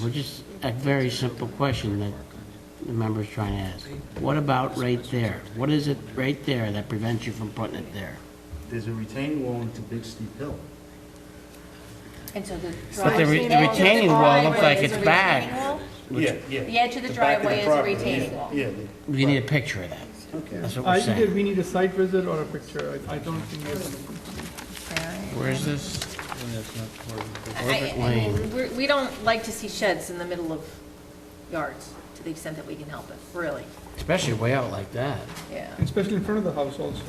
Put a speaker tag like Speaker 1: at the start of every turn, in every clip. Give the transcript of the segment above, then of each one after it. Speaker 1: well, just a very simple question that the member's trying to ask. What about right there? What is it right there that prevents you from putting it there?
Speaker 2: There's a retaining wall into Big Steep Hill.
Speaker 3: And so the
Speaker 1: But the re-
Speaker 3: driveway.
Speaker 1: the retaining wall looks like it's back.
Speaker 3: back.
Speaker 2: Yeah, yeah.
Speaker 3: The edge of the
Speaker 2: back of
Speaker 3: driveway is a
Speaker 2: property,
Speaker 3: retaining
Speaker 2: yeah,
Speaker 3: wall.
Speaker 2: Yeah.
Speaker 1: We need a picture of that. That's what
Speaker 4: Uh,
Speaker 1: we're
Speaker 4: Either
Speaker 1: saying.
Speaker 4: we need a site visit or a picture. I I don't think we have anything.
Speaker 1: Where is this?
Speaker 3: I, I mean, we're- we don't like to see sheds in the middle of yards, to the extent that we can help it, really,
Speaker 1: Especially way out like that.
Speaker 3: yeah.
Speaker 4: Especially in front of the house also.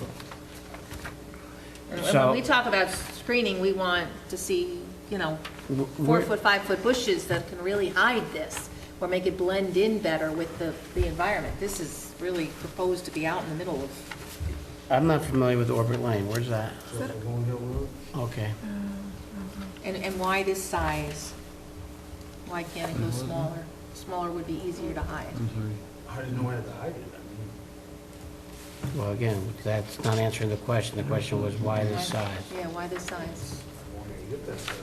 Speaker 3: And when
Speaker 1: So-
Speaker 3: we talk about screening, we want to see, you know,
Speaker 1: W-
Speaker 3: four
Speaker 1: where-
Speaker 3: foot, five foot bushes that can really hide this, or make it blend in better with the, the environment. This is really proposed to be out in the middle of,
Speaker 1: I'm not familiar with Orbit Lane. Where's that?
Speaker 2: Long Hill Road?
Speaker 1: Okay.
Speaker 3: and, and why this size? Why can't it go smaller? Smaller would be easier to hide.
Speaker 2: I didn't know where to hide it, I
Speaker 1: Well, again, that's not answering the question. The question was why this size?
Speaker 3: Yeah, why this size?
Speaker 2: mean, wanted to get that.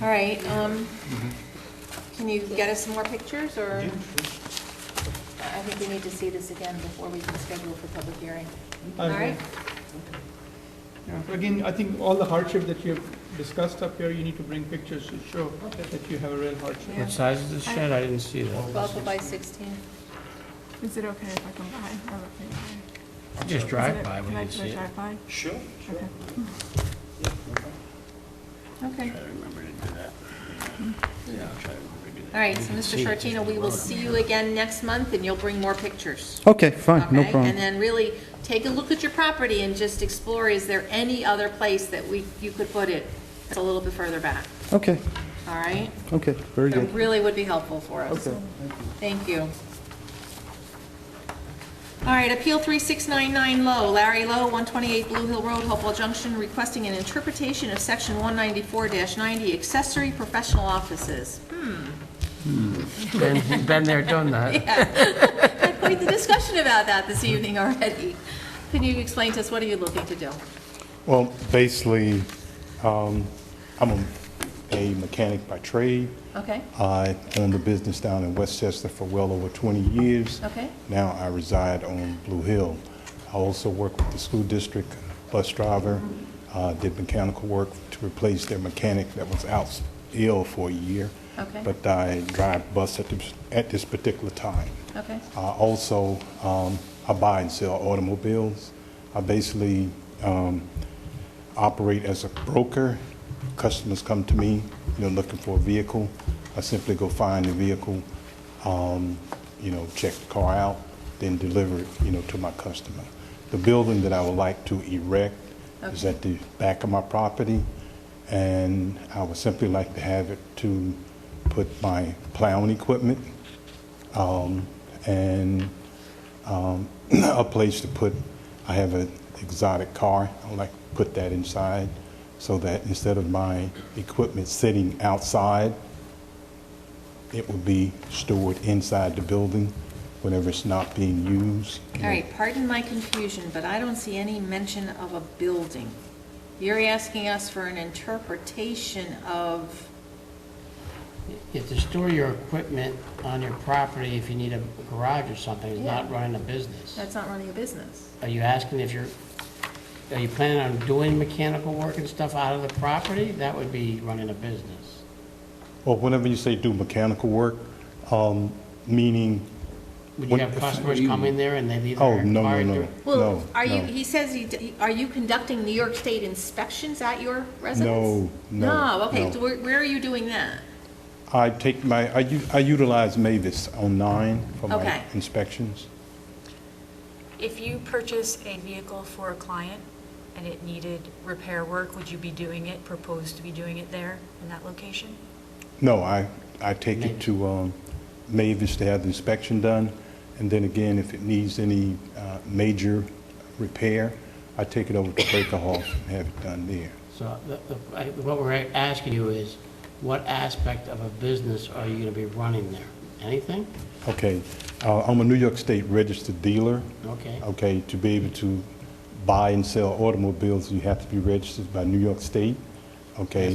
Speaker 3: All right, um, can you get us some more pictures, or? I I think we need to see this again before we can schedule for public hearing.
Speaker 4: I
Speaker 3: All right?
Speaker 4: agree. Again, I think all the hardship that you have discussed up here, you need to bring pictures to show that you have a real hardship.
Speaker 3: Yeah.
Speaker 1: What size is this shed? I didn't see that.
Speaker 3: Twelve foot by sixteen.
Speaker 5: Is it okay if I come by? I look in there.
Speaker 1: Just
Speaker 5: Is
Speaker 1: drive
Speaker 5: it-
Speaker 1: by, we
Speaker 5: Can I
Speaker 1: can
Speaker 5: can
Speaker 1: see
Speaker 5: I
Speaker 1: it.
Speaker 5: drive by?
Speaker 2: Sure.
Speaker 5: Okay. Okay.
Speaker 3: Mm-hmm. All right, so Mr. Shortino, we will see you again next month, and you'll bring more pictures.
Speaker 6: Okay, fine,
Speaker 3: okay?
Speaker 6: no
Speaker 3: And
Speaker 6: problem.
Speaker 3: then really, take a look at your property and just explore, is there any other place that we, you could put it? That's a little bit further back,
Speaker 6: Okay,
Speaker 3: all right?
Speaker 6: okay, very
Speaker 3: That
Speaker 6: good.
Speaker 3: really would be helpful for us.
Speaker 6: Okay.
Speaker 3: Thank you. All right, Appeal 3699 Low, Larry Low, 128 Blue Hill Road, Hopewell Junction, requesting an interpretation of Section 194-90 accessory professional offices.
Speaker 1: Been- Been there, done that.
Speaker 3: Had quite the discussion about that this evening already. Can you explain to us, what are you looking to do?
Speaker 7: Well, basically, um, I'm a- a mechanic by trade.
Speaker 3: Okay,
Speaker 7: I owned a business down in Westchester for well over 20 years.
Speaker 3: Okay.
Speaker 7: Now I reside on Blue Hill. I also work with the school district bus driver, uh, did mechanical work to replace their mechanic that was out ill for a year.
Speaker 3: Okay.
Speaker 7: But I drive bus at this- at this particular time.
Speaker 3: okay,
Speaker 7: I also, um, I buy and sell automobiles. I basically um, operate as a broker. Customers come to me, you know, looking for a vehicle. I simply go find the vehicle, um, you know, check the car out, then deliver it, you know, to my customer. The building that I would like to erect is at the back of my property, and I would simply like to have it to put my plowing equipment, um, and um, a place to put, I have an exotic car, I would like to put that inside so that instead of my equipment sitting outside, it would be stored inside the building whenever it's not being used.
Speaker 3: all right, pardon my confusion, but I don't see any mention of a building. You're asking us for an interpretation of,
Speaker 1: You have to store your equipment on your property if you need a garage or something, it's not running a business.
Speaker 3: that's not running a business.
Speaker 1: Are you asking if you're, are you planning on doing mechanical work and stuff out of the property? That would be running a business.
Speaker 7: Or whenever you say do mechanical work, um, meaning,
Speaker 1: Would you
Speaker 7: What-
Speaker 1: have customers come in there and they leave
Speaker 7: oh,
Speaker 1: their
Speaker 7: no,
Speaker 1: car?
Speaker 7: no,
Speaker 1: in
Speaker 7: no,
Speaker 1: their-
Speaker 3: Well,
Speaker 7: no,
Speaker 3: are you,
Speaker 7: no.
Speaker 3: he says, you d- are you conducting New York State inspections at your residence?
Speaker 7: No, no,
Speaker 3: No, okay,
Speaker 7: no.
Speaker 3: so where, where are you doing that?
Speaker 7: I take my, I u- I utilize Mavis online for
Speaker 3: Okay.
Speaker 7: my inspections.
Speaker 8: If you purchase a vehicle for a client and it needed repair work, would you be doing it, propose to be doing it there in that location?
Speaker 7: No, I, I take it to um, Mavis to have the inspection done, and then again, if it needs any uh, major repair, I take it over to Baker Hall and have it done there.
Speaker 1: So the- the- I- what we're asking you is, what aspect of a business are you going to be running there? Anything?
Speaker 7: Okay, uh, I'm a New York State registered dealer.
Speaker 1: Okay.
Speaker 7: Okay, to be able to buy and sell automobiles, you have to be registered by New York State, okay?